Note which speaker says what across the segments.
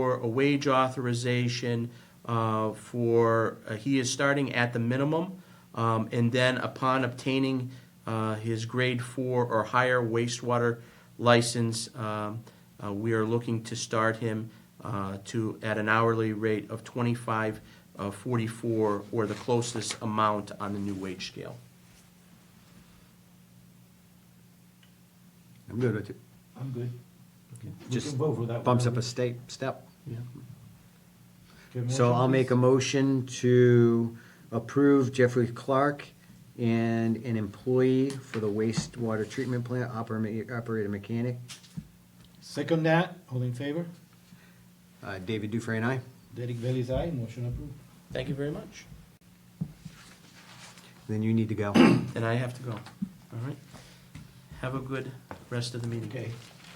Speaker 1: for a wage authorization uh, for, uh, he is starting at the minimum, um, and then upon obtaining uh, his grade four or higher wastewater license, um, uh, we are looking to start him uh, to, at an hourly rate of twenty-five uh, forty-four, or the closest amount on the new wage scale.
Speaker 2: I'm good with it.
Speaker 3: I'm good. We
Speaker 2: Just
Speaker 3: can vote for that.
Speaker 2: bumps up
Speaker 3: one.
Speaker 2: a state, step.
Speaker 3: Okay,
Speaker 2: So
Speaker 3: motion,
Speaker 2: I'll make a
Speaker 3: please.
Speaker 2: motion to approve Jeffrey Clark and an employee for the wastewater treatment plant oper- operator mechanic.
Speaker 3: Second that, all in favor?
Speaker 2: Uh, David Dufresne, aye.
Speaker 3: Derek Bailey's aye, motion approved.
Speaker 1: Thank you very much.
Speaker 2: Then you need to go.
Speaker 1: And I have to go. All right. Have a good rest of the meeting.
Speaker 3: Okay.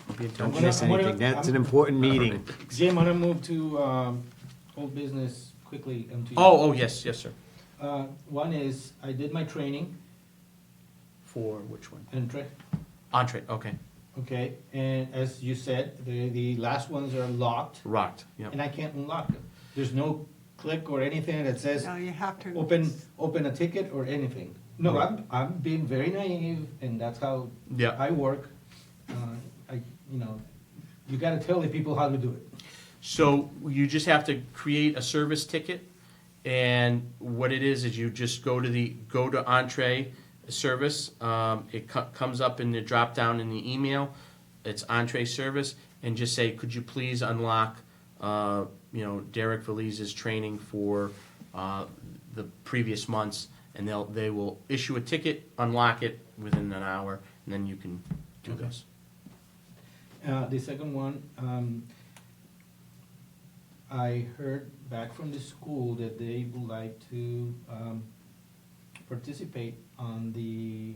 Speaker 1: I'll be in touch.
Speaker 2: Don't
Speaker 3: gonna-
Speaker 2: miss
Speaker 3: I'm gonna-
Speaker 2: anything. That's an
Speaker 3: I'm-
Speaker 2: important meeting.
Speaker 3: Jim, I'm gonna move to, um, old business quickly, um, to you.
Speaker 1: Oh, oh, yes, yes, sir.
Speaker 3: Uh, one is, I did my training,
Speaker 1: For which one?
Speaker 3: and tra-
Speaker 1: Entree, okay.
Speaker 3: okay, and as you said, the, the last ones are locked,
Speaker 1: Rocked, yeah.
Speaker 3: and I can't unlock them. There's no click or anything that says,
Speaker 4: No, you have to.
Speaker 3: open, open a ticket or anything. No, I'm, I'm being very naive, and that's how
Speaker 1: Yeah.
Speaker 3: I work. Uh, I, you know, you gotta tell the people how to do it.
Speaker 1: So you just have to create a service ticket, and what it is, is you just go to the, go to entree service. Um, it co- comes up in the drop down in the email, it's entree service, and just say, could you please unlock, uh, you know, Derek Valise's training for, uh, the previous months, and they'll, they will issue a ticket, unlock it within an hour, and then you can do
Speaker 3: Okay.
Speaker 1: this.
Speaker 3: Uh, the second one, um, I heard back from the school that they would like to, um, participate on the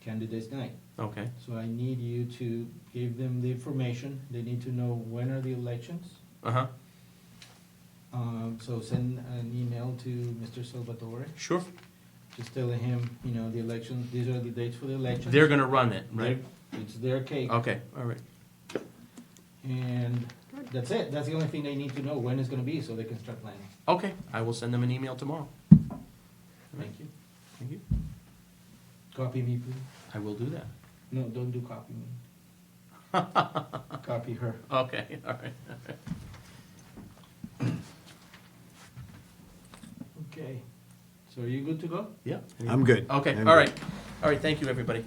Speaker 3: candidates night.
Speaker 1: Okay,
Speaker 3: So I need you to give them the information. They need to know when are the elections.
Speaker 1: uh-huh,
Speaker 3: Um, so send an email to Mr. Salvatore,
Speaker 1: sure.
Speaker 3: just telling him, you know, the election, these are the dates for the election.
Speaker 1: They're gonna run it, right? Oh.
Speaker 3: It's their cake,
Speaker 1: Okay, all right.
Speaker 3: and that's it, that's the only thing they need to know, when it's gonna be, so they can start planning.
Speaker 1: Okay, I will send them an email tomorrow.
Speaker 3: Thank you.
Speaker 1: Thank you.
Speaker 3: Copy me, please.
Speaker 1: I will do that.
Speaker 3: No, don't do copy me. Copy her.
Speaker 1: Okay, all right, all right.
Speaker 3: Okay. So are you good to go?
Speaker 1: Yeah.
Speaker 2: I'm good.
Speaker 1: Okay,
Speaker 2: I'm
Speaker 1: all
Speaker 2: good.
Speaker 1: right. All right, thank you, everybody.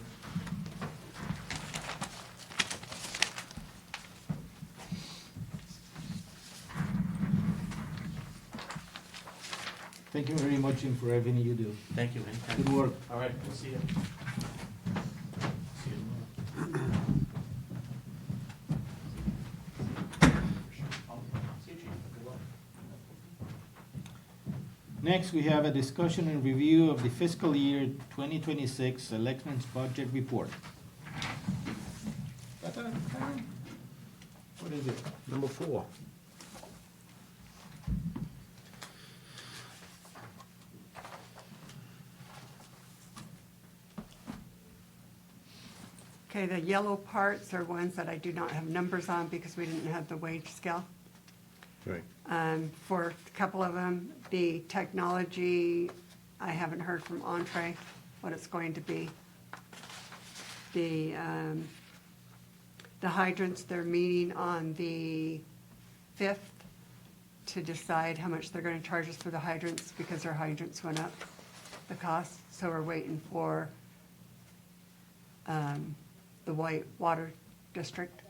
Speaker 3: Thank you very much, Jim, for everything you do.
Speaker 1: Thank you. anytime.
Speaker 3: Good work.
Speaker 1: All right, we'll see you. See you tomorrow. See you, Chief. Good luck.
Speaker 3: Next, we have a discussion and review of the fiscal year 2026 Elections Budget Report. What is it?
Speaker 2: Number four.
Speaker 4: Okay, the yellow parts are ones that I do not have numbers on because we didn't have the wage scale.
Speaker 2: Right.
Speaker 4: Um, For a couple of them, the technology, I haven't heard from Entree what it's going to be. The, um, the hydrants, they're meeting on the 5th to decide how much they're going to charge us for the hydrants because their hydrants went up, the cost. So we're waiting for um, the White Water District.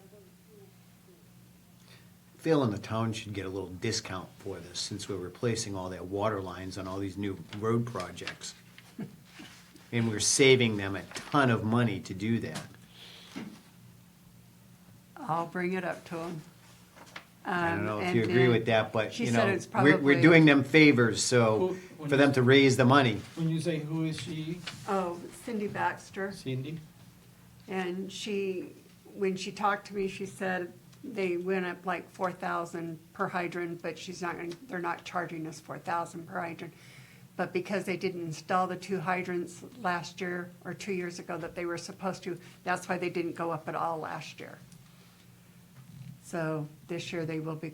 Speaker 2: Phil and the town should get a little discount for this, since we're replacing all that water lines on all these new road projects. And we're saving them a ton of money to do that.
Speaker 4: I'll bring it up to them.
Speaker 2: I don't know if you agree with that, but,
Speaker 4: Um, she
Speaker 2: you
Speaker 4: said
Speaker 2: know,
Speaker 4: it's
Speaker 2: we're, we're
Speaker 4: probably-
Speaker 2: doing them favors, so,
Speaker 3: Who-
Speaker 2: for them to raise the money.
Speaker 3: When you say who is she,
Speaker 4: Oh, Cindy Baxter,
Speaker 3: Cindy?
Speaker 4: and she, when she talked to me, she said they went up like four thousand per hydrant, but she's not gonna, they're not charging us four thousand per hydrant. But because they didn't install the two hydrants last year or two years ago that they were supposed to, that's why they didn't go up at all last year. So this year they will be